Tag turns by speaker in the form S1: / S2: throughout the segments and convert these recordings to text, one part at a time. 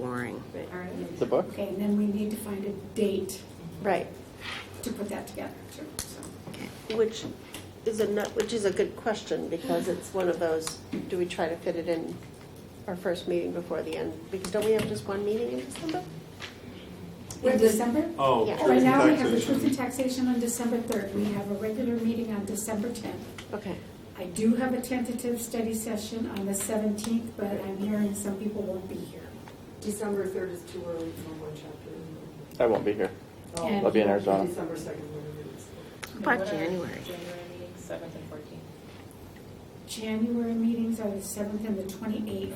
S1: exploring.
S2: All right.
S3: The book?
S2: Okay, and then we need to find a date
S4: Right.
S2: to put that together, too, so.
S4: Which is a, nut- which is a good question, because it's one of those, do we try to fit it in our first meeting before the end? Because don't we have just one meeting in December?
S2: We're December?
S5: Oh,
S4: Yeah.
S5: truth
S2: Right
S5: and
S2: now, we have the
S5: taxation.
S2: truth and taxation on December 3rd. We have a regular meeting on December 10th.
S4: Okay.
S2: I do have a tentative study session on the 17th, but I'm hearing some people won't be here.
S6: December third is too early for one chapter.
S3: I won't be here.
S2: And-
S3: I'll be in Arizona.
S6: December second, whatever it is.
S1: About January.
S7: January meeting, seventh and fourteenth.
S2: January meetings are the 7th and the 28th,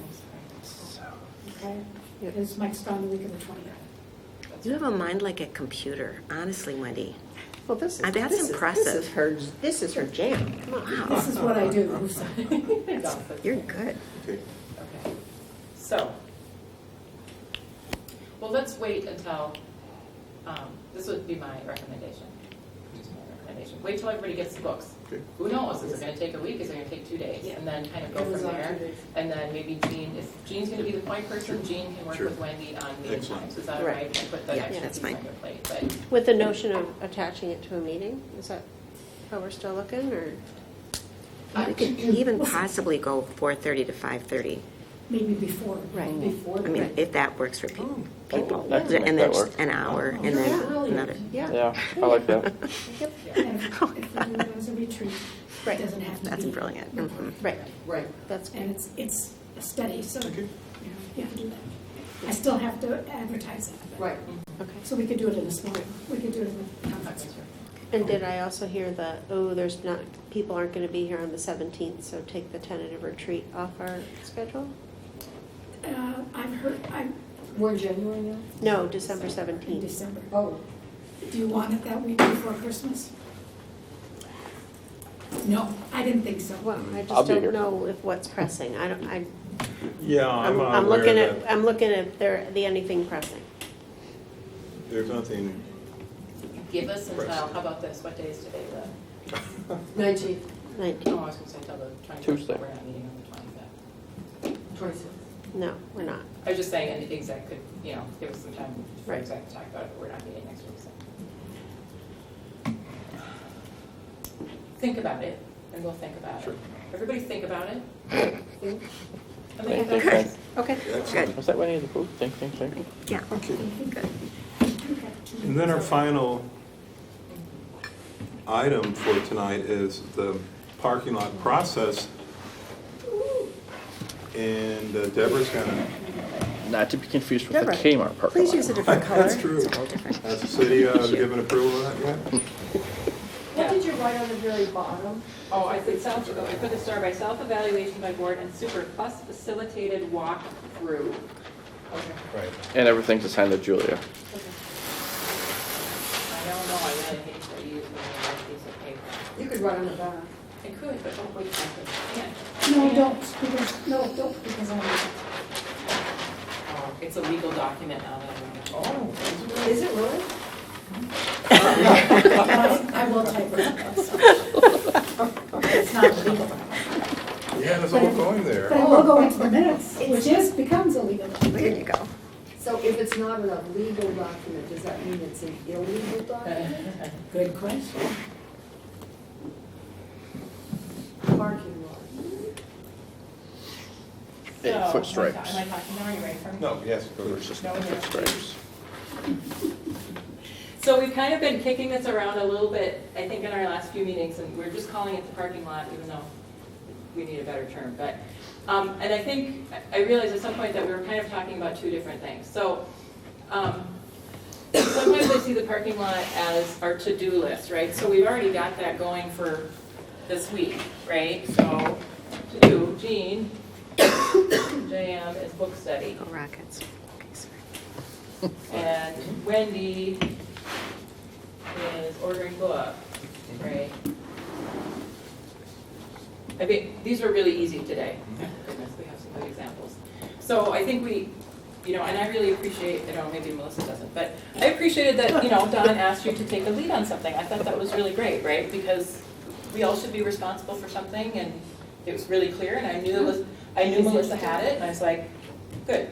S2: okay?
S4: Yep.
S2: Because Mike's gone the week of the 29th.
S1: You have a mind like a computer, honestly, Wendy.
S4: Well, this
S1: Uh, that's
S4: is, this is, this is
S1: impressive.
S4: her, this is her jam.
S2: This is what I do, so.
S1: You're good.
S7: Okay, so, well, let's wait until, um, this would be my recommendation. Just my recommendation. Wait till everybody gets the books.
S5: Okay.
S7: Who knows, is it gonna take a week, is it gonna take two days? And then kind of go from
S6: Amazon
S7: there.
S6: two days.
S7: And then maybe Jean, if Jean's gonna be the point person, Jean can work
S5: Sure.
S7: with Wendy on meeting
S5: Excellent.
S7: times. Is that all
S4: Right.
S7: right? And put the
S1: Yeah,
S7: extra
S1: that's
S7: piece on
S1: fine.
S7: your plate, but
S4: With the notion of attaching it to a meeting, is that how we're still looking, or?
S1: You could even possibly go 4:30 to 5:30.
S2: Maybe before.
S4: Right.
S6: Before.
S1: I mean, if that works for pe-
S4: Oh,
S1: people.
S3: that can
S1: And
S3: make
S1: then
S3: that work.
S1: just an hour and then another.
S3: Yeah, I like that.
S2: And if if we do it as a retreat, it
S4: Right.
S2: doesn't have to be.
S1: That's brilliant. Mhm.
S4: Right,
S6: Right.
S4: that's
S2: And
S4: good.
S2: it's, it's a study, so you know, you have to do that. I still have to advertise it. but-
S6: Right.
S4: Okay.
S2: So we could do it in a small, we could do it in a
S7: I'm not
S2: conference.
S7: sure.
S4: And did I also hear that, oh, there's not, people aren't going to be here on the 17th, so take the tentative retreat off our schedule?
S2: Uh, I've heard, I'm
S6: We're in January now?
S4: No, December
S2: in
S4: 17th.
S2: December.
S6: Oh,
S2: Do you want it that week before Christmas? No, I didn't think so.
S4: Well, I
S3: I'll
S4: just
S3: be here.
S4: don't know if what's pressing. I don't, I,
S5: Yeah,
S4: I'm
S5: I'm
S4: I'm
S5: aware
S4: looking at,
S5: that
S4: I'm looking at there, the anything pressing.
S5: there's nothing,
S7: Give us until,
S5: Right.
S7: how about this, what day is today, the,
S6: nineteenth,
S4: Like,
S7: oh, I was gonna say till the twenty-fifth,
S3: Tuesday.
S7: but we're not meeting on the twenty-fifth.
S6: twenty-sixth.
S4: no, we're not.
S7: I was just saying, and the exec could, you know, give us some time for
S4: Right.
S7: exec to talk about it, but we're not meeting next week, so. Think about it, and we'll think about it. Everybody think about it. Think.
S3: Think,
S7: And think
S3: think,
S7: about it.
S3: think.
S4: Okay.
S5: excellent.
S3: Was that Winnie the Pooh? Think, think, think.
S1: Yeah.
S5: And then our final item for tonight is the parking lot process. And uh, Deborah's gonna,
S3: Not to be confused with the
S4: Deborah,
S3: Kmart parking
S4: Please
S3: lot.
S4: use a different color.
S5: that's true. Has the city uh, given approval of that yet?
S7: Yeah.
S6: What did you write on the very bottom?
S7: Oh, I put self, I put the star by self-evaluation by board and super plus facilitated walk-through. Okay.
S3: And everything's assigned to Julia.
S7: I don't know, I really hate to use a piece of paper.
S6: You could write on the back.
S7: I could, but don't wait, I could, can't.
S2: No, don't, because, no, don't, because I'm.
S5: Oh.
S7: Oh, It's a legal document now that I'm.
S5: Oh,
S6: Is it really?
S2: I will type it up. It's not legal.
S5: yeah, that's all going
S2: But
S5: there.
S2: I will go into the minutes, which is, becomes illegal.
S1: There you go.
S6: So if it's not a legal document, does that mean it's an illegal document?
S2: Good question.
S6: Parking lot.
S3: Eight foot
S7: So, Am I
S3: stripes.
S7: am I talking now, are you ready for me?
S5: No, yes,
S3: There's
S5: please.
S3: just eight foot stripes.
S7: So we've kind of been kicking this around a little bit, I think, in our last few meetings, and we're just calling it the parking lot, even though we need a better term, but, um, and I think, I- I realized at some point that we were kind of talking about two different things. So, um, sometimes I see the parking lot as our to-do list, right? So we've already got that going for this week, right? So, to-do, Jean, JM is book study.
S1: Go Rockets. Okay, sorry.
S7: And Wendy is ordering books, right? I think, these were really easy today. Thank Goodness, we have some good examples. So I think we, you know, and I really appreciate, I don't know, maybe Melissa doesn't, but I appreciated that, you know, Don asked you to take the lead on something. I thought that was really great, right? Because we all should be responsible for something, and it was really clear, and I knew, it was- I knew Melissa had it, and I was like, good.